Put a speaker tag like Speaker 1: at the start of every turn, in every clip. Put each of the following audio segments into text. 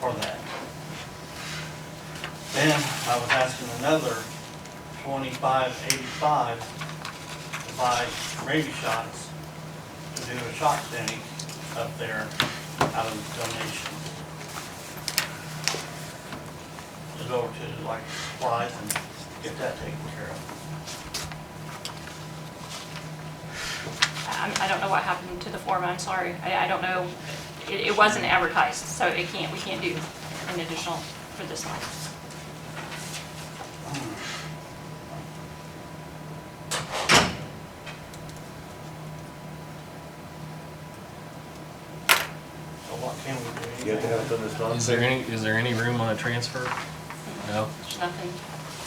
Speaker 1: for that. Then I was asking another twenty-five eighty-five to buy rabies shots to do a shot clinic up there out of donations. To go to like supplies and get that taken care of.
Speaker 2: I Um, I don't know what happened to the foreman, I'm sorry. I I don't know, it it wasn't advertised, so it can't, we can't do an additional for this month.
Speaker 1: So what can we do?
Speaker 3: You have to have it done this month.
Speaker 4: Is there any, is there any room on a transfer? No?
Speaker 2: There's nothing,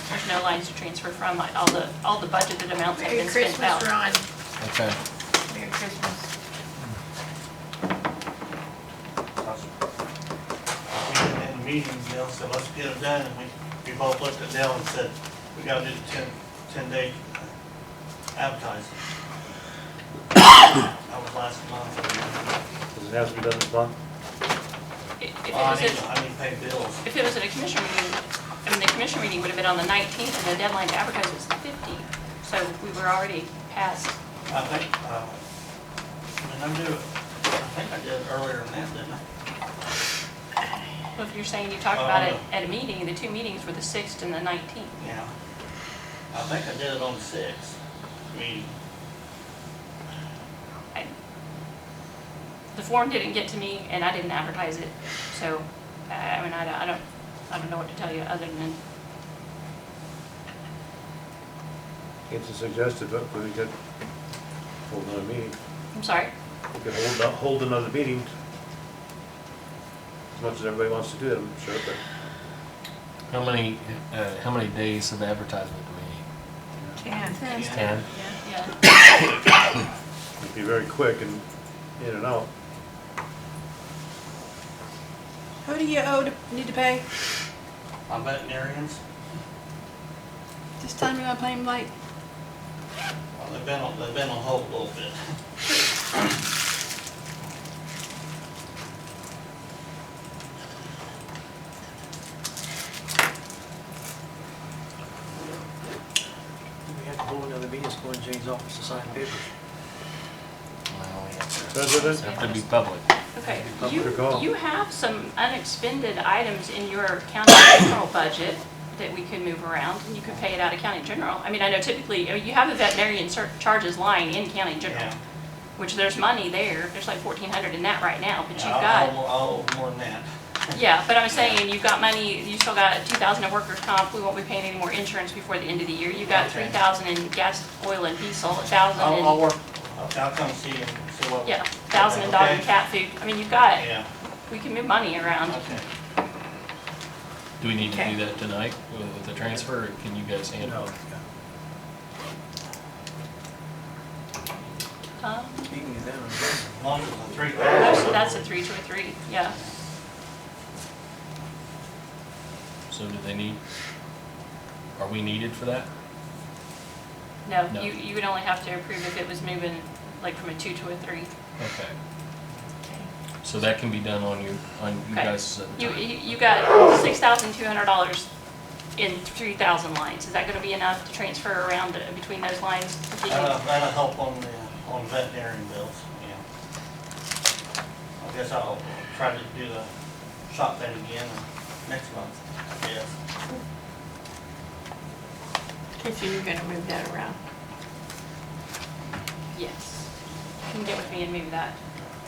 Speaker 2: there's no lines to transfer from, like, all the, all the budgeted amounts have
Speaker 5: Merry
Speaker 2: been spent
Speaker 5: Christmas,
Speaker 2: out.
Speaker 5: Ron.
Speaker 4: Okay.
Speaker 5: Merry Christmas.
Speaker 1: In the meeting, Dale said, let's get it done, and we, we both looked at Dale and said, we gotta do the ten, ten day advertising. That was last month.
Speaker 3: Does it have to be done this month?
Speaker 2: If if it
Speaker 1: Well, I
Speaker 2: was,
Speaker 1: need,
Speaker 2: a-
Speaker 1: I need to pay bills.
Speaker 2: if it was at a commission meeting, I mean, the commission meeting would have been on the 19th, and the deadline to advertise was the 15th. So we were already past,
Speaker 1: I think, uh, I mean, I do, I think I did earlier than that, didn't I?
Speaker 2: well, if you're saying you talked about it at a meeting, the two meetings were the 6th and the 19th.
Speaker 1: Yeah. I think I did it on the sixth meeting.
Speaker 2: I- The form didn't get to me and I didn't advertise it, so, I I mean, I don't- I don't, I don't know what to tell you other than,
Speaker 3: It's a suggested vote, but we could hold another meeting.
Speaker 2: I'm sorry.
Speaker 3: We could hold, not hold another meeting. As much as everybody wants to do it, I'm sure, but
Speaker 4: How many, uh, how many days of advertisement do we need?
Speaker 5: Ten.
Speaker 1: Yeah.
Speaker 4: Ten?
Speaker 2: Yeah,
Speaker 3: it'd be very quick and in and out.
Speaker 6: Who do you owe to, need to pay?
Speaker 1: My veterinarians,
Speaker 6: Just tell me I pay him late.
Speaker 1: well, they've been on, they've been on hold a little bit.
Speaker 7: We have to hold another meeting, it's going to Jane's office to sign papers.
Speaker 4: Well, we have to-
Speaker 3: President?
Speaker 4: Have to be public.
Speaker 2: okay.
Speaker 3: Up
Speaker 2: You,
Speaker 3: to go.
Speaker 2: you have some unexpended items in your county general budget that we could move around and you could pay it out of county general. I mean, I know typically, I mean, you have a veterinarian cer- charges line in county general,
Speaker 1: Yeah.
Speaker 2: which there's money there, there's like 1,400 in that right now, but you've
Speaker 1: Yeah, I'll-
Speaker 2: got.
Speaker 1: I'll- I'll owe more than that.
Speaker 2: Yeah, but I'm saying, you've got money, you still got two thousand in workers' comp, we won't be paying any more insurance before the end of the year. You've got
Speaker 1: Okay. Oh,
Speaker 2: three thousand in gas, oil, and diesel, a thousand
Speaker 1: I'll, I'll
Speaker 2: in,
Speaker 1: work, I'll I'll come see you and see what.
Speaker 2: yeah, thousand in dog and
Speaker 1: oh. Okay.
Speaker 2: cat food. I mean, you've got,
Speaker 1: Yeah,
Speaker 2: we can move money around.
Speaker 1: okay.
Speaker 4: Do we need to
Speaker 5: Okay.
Speaker 4: do that tonight with with the transfer, or can you guys handle it?
Speaker 2: Um,
Speaker 7: Speaking of them, I'm guessing.
Speaker 1: As long as the three
Speaker 2: That's,
Speaker 1: thousand.
Speaker 2: that's a three to a three, yeah.
Speaker 4: So do they need, are we needed for that?
Speaker 2: No,
Speaker 4: No.
Speaker 2: you, you would only have to approve if it was moving, like, from a two to a three.
Speaker 4: Okay. So that can be done on you, on you
Speaker 2: Okay.
Speaker 4: guys'
Speaker 2: You,
Speaker 5: e-
Speaker 4: time.
Speaker 2: you you got six thousand two hundred dollars in three thousand lines. Is that gonna be enough to transfer around uh, between those lines? Do you-
Speaker 1: That'll, that'll help on the, on veterinarian bills, yeah. I guess I'll try to do the shop thing again next month, I guess.
Speaker 5: Okay, so you're gonna move that around.
Speaker 2: Yes. You can get with me and move that.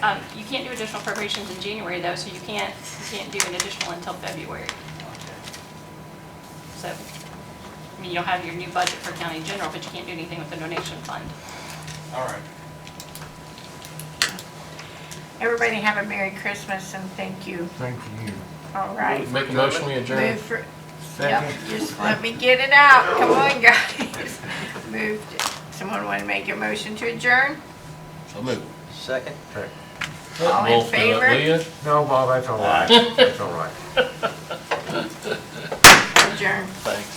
Speaker 2: Um, you can't do additional appropriations in January though, so you can't, you can't do an additional until February.
Speaker 1: Okay.
Speaker 2: So, I mean, you'll have your new budget for county general, but you can't do anything with the donation fund.
Speaker 1: All right.
Speaker 5: Everybody have a Merry Christmas and thank you.
Speaker 4: Thank you.
Speaker 5: All right.
Speaker 4: Make a motion, we adjourn.
Speaker 5: Move for, yep, just let me get it out. Come on, guys. Moved. Someone wanna make a motion to adjourn?
Speaker 4: So move.
Speaker 7: Second?
Speaker 5: All in
Speaker 4: Wolf, do it, will
Speaker 5: favor?
Speaker 4: ya?
Speaker 8: No, Bob, that's all right. That's all right.
Speaker 5: Adjourn.
Speaker 4: Thanks.